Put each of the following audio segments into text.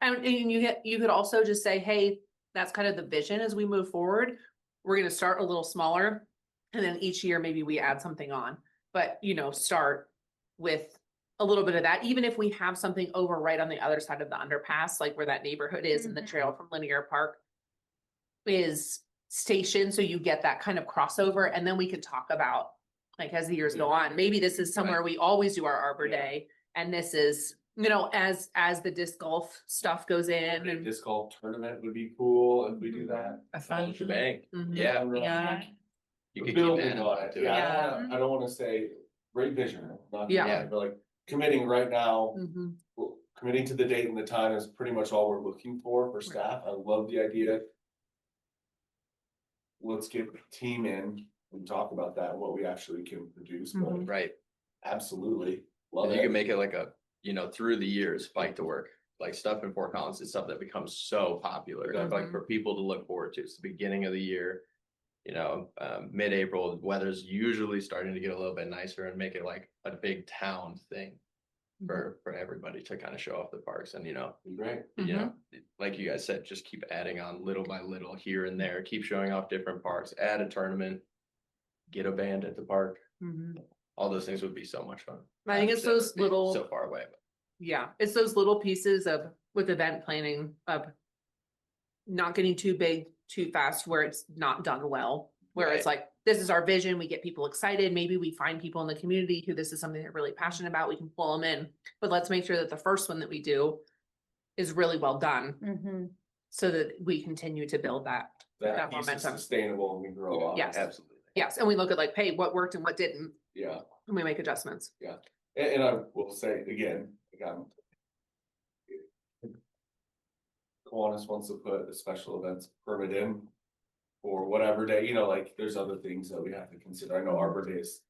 And, and you get, you could also just say, hey, that's kind of the vision as we move forward. We're gonna start a little smaller. And then each year, maybe we add something on, but you know, start with a little bit of that, even if we have something over right on the other side of the underpass, like where that neighborhood is and the Mhm. trail from Linear Park. Is stationed, so you get that kind of crossover, and then we can talk about, like, as the years go on, maybe this is somewhere we always do our Arbor Yeah. Day. And this is, you know, as, as the disc golf stuff goes in A and. Mm-hmm. Disc golf tournament would be cool if we do that. A Whole fun, shebang. Mhm. Yeah. yeah, You could keep Building that on it, yeah, I don't wanna, I don't wanna say great vision, not, Yeah. yeah, but like committing right now. Mhm. well, Committing to the date and the time is pretty much all we're looking for for staff, I love the idea. Let's get the team in and talk about that, what we actually can produce, but Mhm. right? absolutely, love And you it. can make it like a, you know, through the years, bike to work, like stuff in Fort Collins is stuff that becomes so popular, Yeah. like for people to look forward to. It's the beginning of the year. You know, um, mid-April, the weather's usually starting to get a little bit nicer and make it like a big town thing for, for everybody to kind of show off the parks and, you know, Great. you know, like you guys said, just keep adding on little by little here and there, keep showing off different parks, add a tournament, get a band at the park. Mhm. Mhm. All those things would be so much fun. I think it's That would those be little. So far away. Yeah, it's those little pieces of with event planning of. Not getting too big too fast where it's not done well, where it's like, this is our vision, we get people excited, maybe we find people in the community who this is something they're really passionate about, we can pull them in. But let's make sure that the first one that we do is really well done Mm-hmm. so that we continue to build that. That That piece is momentum. sustainable and we grow up. Yeah. Yes. Absolutely. Yes, and we look at like, hey, what worked and what didn't, Yeah, and we make adjustments. and, and I will say again, again. Kiwanis wants to put a special events permit in. Or whatever day, you know, like, there's other things that we have to consider, I know Arbor Day is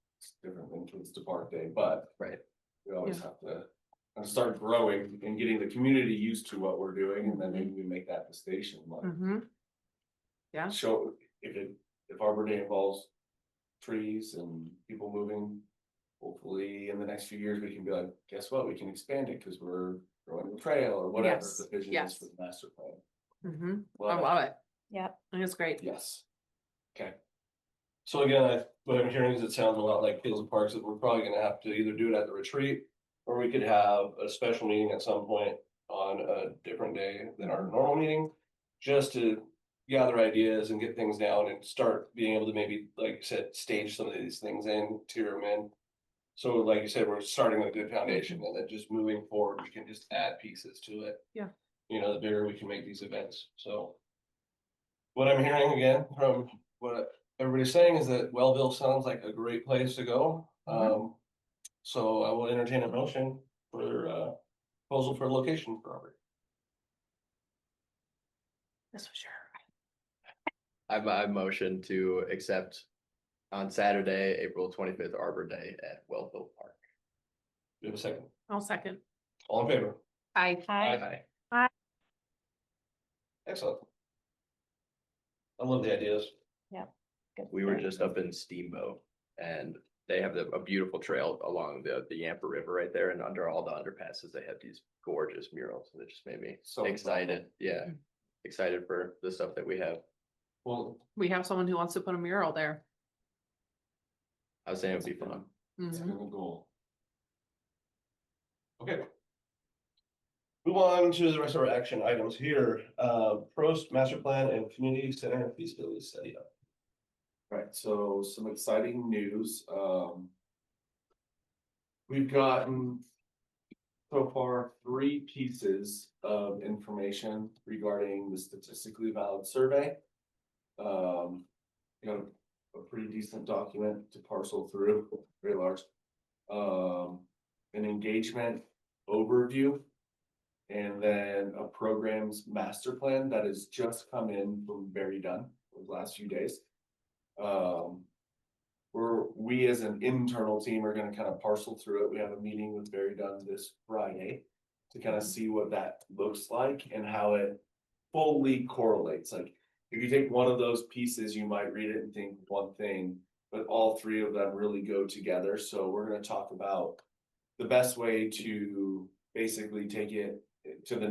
different than Kids Depart Day, but. Right. We always have to, uh, start growing and getting the community used to what we're doing, and then maybe we make that the station, like. Mhm. Yeah. Show, if it, if Arbor Day involves trees and people moving. Hopefully, in the next few years, we can be like, guess what, we can expand it, cause we're growing the trail or whatever Yes, the vision is yes. for the master plan. Mhm. I Well, love it. Yep. I think it's great. yes. Okay. So again, I- what I'm hearing is it sounds a lot like Fields and Parks, that we're probably gonna have to either do it at the retreat. Or we could have a special meeting at some point on a different day than our normal meeting. Just to gather ideas and get things down and start being able to maybe, like you said, stage some of these things in, tier them in. So like you said, we're starting with a good foundation and then just moving forward, we can just add pieces to it. Yeah. You know, the bigger we can make these events, so. What I'm hearing again from what everybody's saying is that Wellville sounds like a great place to go. Mhm. Um, so I will entertain a motion for uh proposal for location for Auburn. That's for sure. I, I motion to accept on Saturday, April twenty-fifth, Arbor Day at Wellville Park. Do we have a second? I'll second. All in favor? I Hi. Excellent. I love the ideas. We were just up in Steamboat and they have the, a beautiful trail along the, the Yampa River right there and under all the underpasses, they have these gorgeous murals that just made me So excited. Yeah. Mm. Excited for the stuff that we have. Well, We have someone who wants to put a mural there. I was saying it'd be fun. it's a Mhm. good goal. Okay. Move on to the rest of our action items here. Uh, Prost Master Plan and Community Center Feasibility Study. Right, so some exciting news, um. We've gotten. So far, three pieces of information regarding the statistically valid survey. Um, you know, a pretty decent document to parcel through, very large. Um, an engagement overview. And then a programs master plan that has just come in from Very Done, the last few days um. We're, we as an internal team are gonna kind of parcel through it. We have a meeting with Barry Dunn this Friday. To kind of see what that looks like and how it fully correlates. Like, if you take one of those pieces, you might read it and think one thing. But all three of them really go together, so we're gonna talk about the best way to basically take it to the